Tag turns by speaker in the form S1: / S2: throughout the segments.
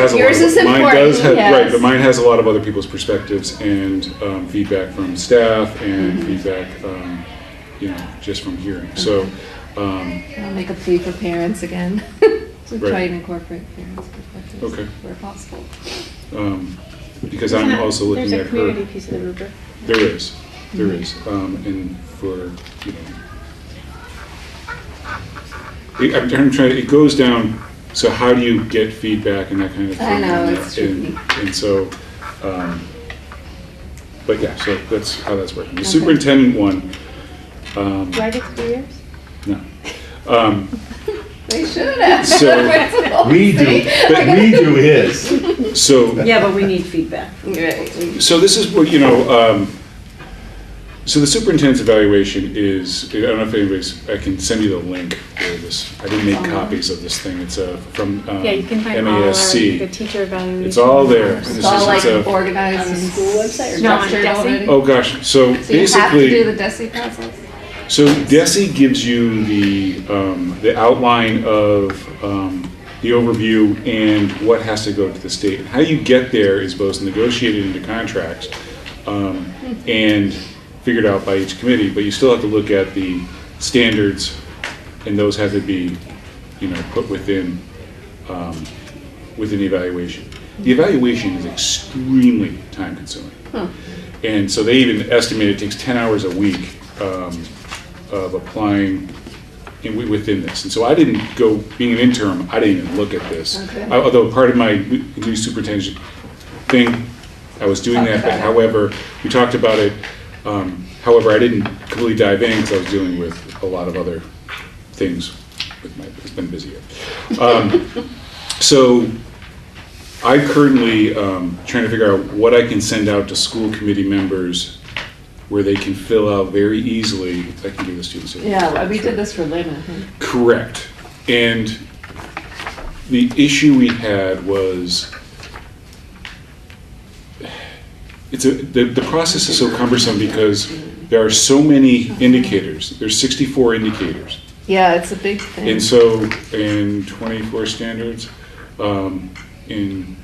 S1: has a lot.
S2: Yours
S1: of-
S2: is
S1: Mine does
S2: important,
S1: have, right,
S2: yes.
S1: but mine has a lot of other people's perspectives and um, feedback from staff and
S3: Mm-hmm.
S1: feedback, um, you know, just from hearing. So, um,
S2: I'll make a plea for parents again, to try
S1: Right.
S2: and incorporate parents' perspectives
S1: Okay.
S2: where possible.
S1: um, because I'm also looking at her.
S3: There's a community piece of the rubric.
S1: There is, there is, um, and for, you know. It, I'm trying, trying- it goes down, so how do you get feedback and that kind of thing?
S2: I know,
S1: and-
S2: it's tricky.
S1: and- And so, um, but yeah, so that's how that's working. The
S2: Okay.
S1: superintendent one, um,
S3: Do I get three years?
S1: no. Um,
S2: They should have.
S1: So,
S4: We do, but we do his.
S1: so.
S5: Yeah, but we need feedback.
S2: Right.
S1: So this is what, you know, um, so the superintendent's evaluation is, I don't know if anybody's, I can send you the link for this. I didn't make copies of this thing. It's uh, from um,
S3: Yeah, you can find all our, the
S1: MASC.
S3: teacher evaluation.
S1: It's all there.
S3: forms.
S1: This
S2: It's all
S1: is-
S2: like
S1: it's a-
S2: organized.
S5: On the
S2: and
S5: school website or
S3: No, on
S2: structured
S3: DESE?
S2: already.
S1: Oh, gosh. So
S2: So you have to do
S1: basically,
S2: the DESI process?
S1: so DESI gives you the, um, the outline of um, the overview and what has to go to the state. How you get there is both negotiated into contracts um, and figured out by each committee, but you still have to look at the standards, and those have to be, you know, put within, um, within the evaluation. The evaluation is extremely time-consuming. And so they even estimate it takes 10 hours a week um, of applying in- wi- within this. And so I didn't go, being an interim, I didn't even look at this.
S2: Okay.
S1: I- Although part of my new superintendent thing, I was doing that, but however, we talked about it. um, However, I didn't completely dive in because I was dealing with a lot of other things with my, it's been busier. Um, So I currently um, trying to figure out what I can send out to school committee members where they can fill out very easily. I can give the students. a-
S2: Yeah, we did this for Lynn, I think.
S1: Correct. And the issue we had was, it's a, the, the process is so cumbersome because there are so many indicators. There's 64 indicators.
S2: Yeah, it's a big thing.
S1: And so, in 24 standards, um, in,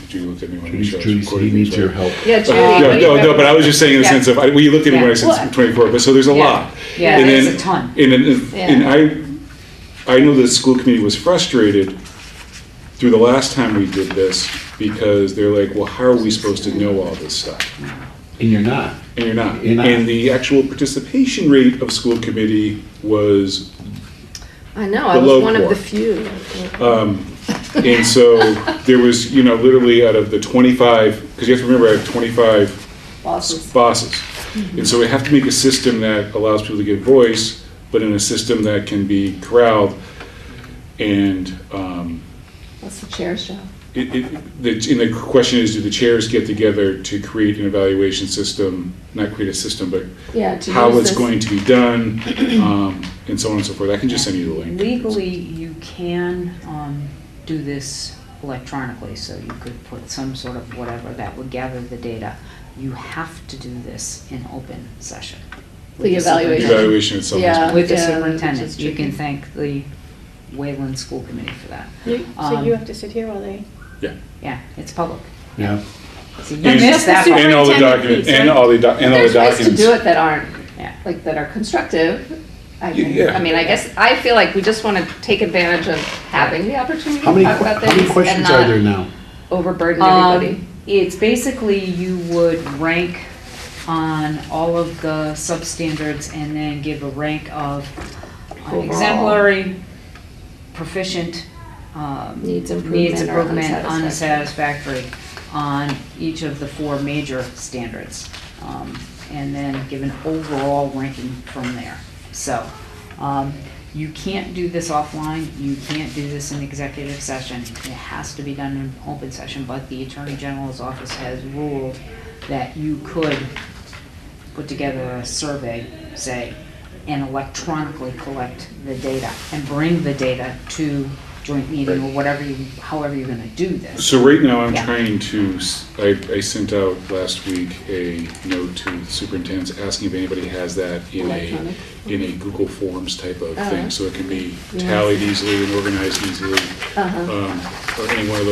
S1: did you look at me when I showed?
S4: Judy, he needs your help.
S2: Yeah, Judy.
S5: Uh,
S1: No,
S2: we-
S1: no, no, but I was just saying in the
S2: Yeah.
S1: sense of, I- well, you looked at me when I
S5: Yeah.
S1: said 24, but, so there's a
S5: Yeah.
S1: lot.
S5: Yeah,
S1: And
S5: there's
S1: then-
S5: a ton.
S1: And, then if- and I, I know the school committee was frustrated through the last time we did this, because they're like, well, how are we supposed to know all this stuff?
S4: And you're not.
S1: And you're not.
S4: You're not.
S1: And the actual participation rate of school committee was
S2: I know, I
S1: the
S2: was
S1: low
S2: one of
S1: core.
S2: the few.
S1: Um, And so there was, you know, literally out of the 25, because you have to remember, I have 25
S2: Bosses. Mm-hmm.
S1: bosses. And so we have to make a system that allows people to get voice, but in a system that can be corralled. And um,
S2: That's the chair's job.
S1: it, it- the- and the question is, do the chairs get together to create an evaluation system? Not create a system, but
S2: Yeah, to
S1: how
S2: use
S1: it's
S2: this-
S1: going to be done, um, and so on and so forth. I can just send you the link.
S5: Legally, you can um, do this electronically, so you could put some sort of whatever that would gather the data. You have to do this in open session. with
S2: The
S1: The
S2: evaluation.
S1: Evaluation itself is
S2: Yeah.
S5: With the
S2: Yeah, which is
S5: superintendent. You
S2: tricky.
S5: can thank the Wayland School Committee for that.
S3: You- So
S5: Um,
S3: you have to sit here while they.
S5: Yeah, it's public.
S4: Yeah.
S5: So you
S1: And-
S5: missed that
S1: And
S5: one.
S1: all the
S3: Superintendent
S1: documents,
S3: piece,
S1: and
S3: right?
S1: all the, doc- and all the
S2: There's ways to
S1: documents.
S2: do it that aren't,
S5: Yeah.
S2: like, that are constructive. I can,
S1: Yeah.
S2: I mean, I guess, I feel like we just want to take advantage of having the opportunity to
S4: How many,
S2: talk
S4: how
S2: about
S4: many
S2: things and
S4: questions are there
S2: not
S4: now?
S2: overburden everybody.
S5: Um, It's basically you would rank on all of the substandards and then give a rank of uh,
S2: Overall.
S5: exemplary, proficient, um,
S2: Needs
S5: needs
S2: improvement or
S5: improvement,
S2: unsatisfactory.
S5: unsatisfactory on each of the four major standards. um, And then give an overall ranking from there. So um, you can't do this offline, you can't do this in executive session. It has to be done in open session, but the Attorney General's office has ruled that you could put together a survey, say, and electronically collect the data and bring the data to joint meeting or whatever you, however you're gonna do this.
S1: So right now, I'm
S5: Yeah.
S1: trying to, s- I, I sent out last week a note to superintendents asking if anybody has that in a,
S2: Electronic.
S1: in a Google Forms type of
S2: Oh.
S1: thing, so it can be tallied easily and organized easily.
S2: Uh-huh.
S1: um, Or any one of those